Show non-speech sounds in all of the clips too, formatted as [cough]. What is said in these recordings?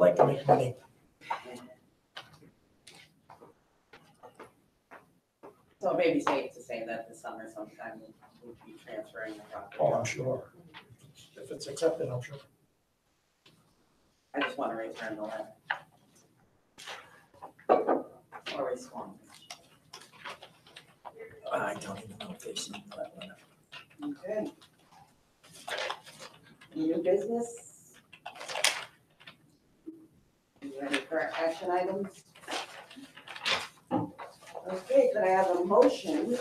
like to make money. So maybe safe to say that this summer sometime we'll be transferring the Oh, I'm property. sure. If it's accepted, I'm sure. I just want to return the letter. Or respond. I don't even know if they see that one. Okay. New business? You ready for action items? Okay, could I have a motion?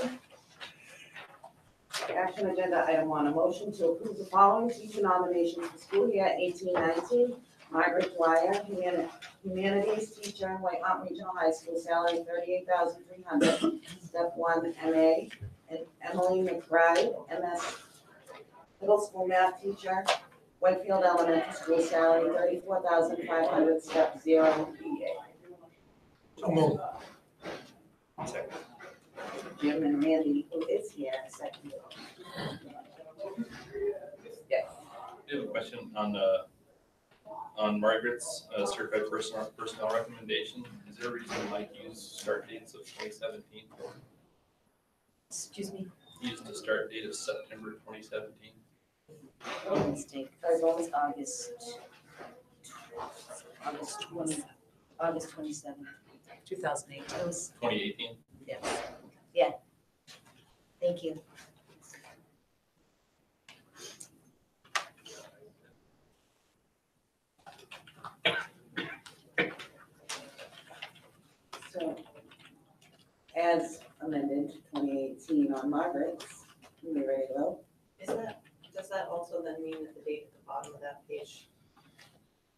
Action agenda item one, a motion to approve the following teacher nominations for school year eighteen nineteen. Margaret Dwyer, humani- humanities teacher, White Mountain Regional High School, salary thirty-eight thousand three hundred, step one MA and Emily McBride, MS Middle School Math Teacher, Whitefield Elementary School, salary thirty-four thousand five hundred, step zero EA. So moved. Jim and Randy, who is here, second. Yes. I have a question on, uh, on Margaret's uh, certified personnel, personnel recommendation. Is there a reason Mike used start dates of twenty seventeen? Excuse me, Used the start date of September twenty seventeen? one mistake, as long as August, August twenty, August twenty-seventh, two thousand eight, that was, Twenty eighteen? yeah, yeah. Thank you. So, as amended twenty eighteen on Margaret's, you may ready to vote? Is that, does that also then mean that the date at the bottom of that page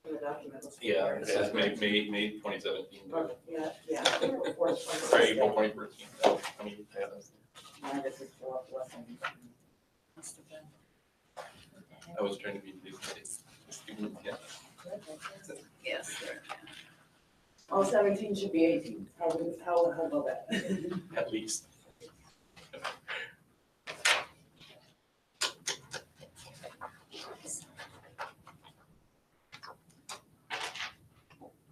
in the document was? Yeah, before- it says May, May, May twenty seventeen. Oh, Yeah, yeah. before the 26th. Sorry, April twenty fourteen. I mean, yeah, that's- Margaret's is still up, listen. Must have been- I was trying to be. it's- it's- yeah. Yes. All seventeen should be eighteen, how, how, how about that? [laughs] At least.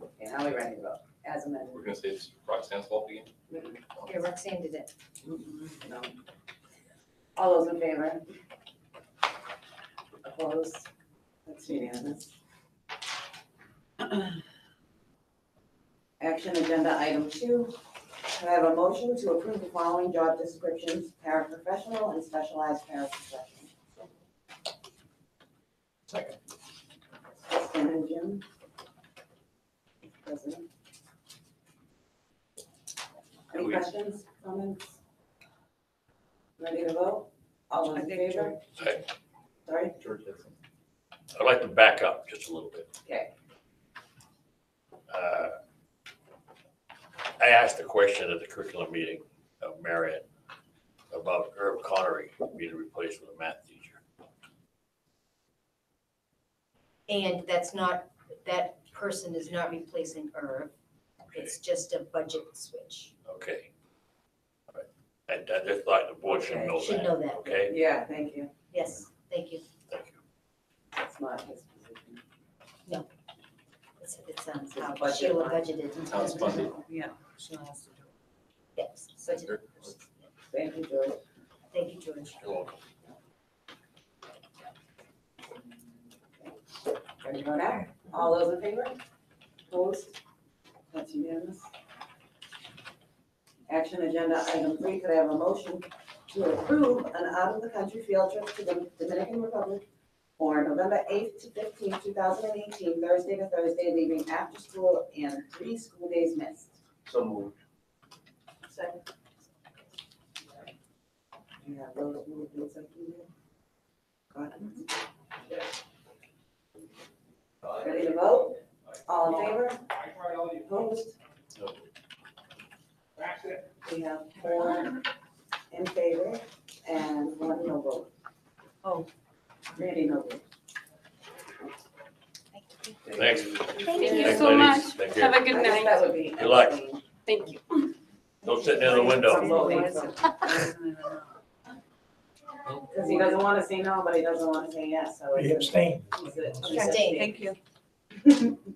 Okay, now we ready to vote, as amended. We're gonna say it's Roxanne's fault again. Yeah, Roxanne did it. No. All those in favor? Opposed? That's unanimous. Action agenda item two. Can I have a motion to approve the following job descriptions, paraprofessional and specialized paraprofessional? Second. Kristen and Jim? President? Any We- questions, comments? Ready to vote? All in favor? Aye. Sorry, George has some. I'd like to back up just a little bit. Okay. Uh, I asked a question at the curriculum meeting of Marion about Herb Connery being replaced with a math teacher. And that's not, that person is not replacing Irv, Okay, it's just a budget switch. Okay. All right. I, I just thought the board should know Should that, know that, okay? yeah, thank you. yes, thank you. Thank you. That's not his position. It's, it's, um, It's a how budget Sheila line. budgeted. How it's funded. Yeah, Sheila has to do it. Yes, budget, Thank you, George. thank you, George. You're welcome. Ready to go now? All those in favor? Opposed? That's unanimous. Action agenda item three, could I have a motion to approve an out-of-the-country field trip to the Dominican Republic for November eighth to fifteenth, two thousand and eighteen, Thursday to Thursday, leaving after school and three school days missed. So moved. Second, Do you have those movements up here? Got it? Ready to vote? All in favor? Opposed? No. We have four in favor and one no vote. Oh. Randy, no vote. Thanks. Thank you Thanks, so ladies. much. Thank you. Have a good I guess night. That would be. Good luck. abstain. Thank you. Don't sit near the window. Because he doesn't want to say no, but he doesn't want to say yes, so. He it's a- abstained. it's a- [laughs] Abstain. you.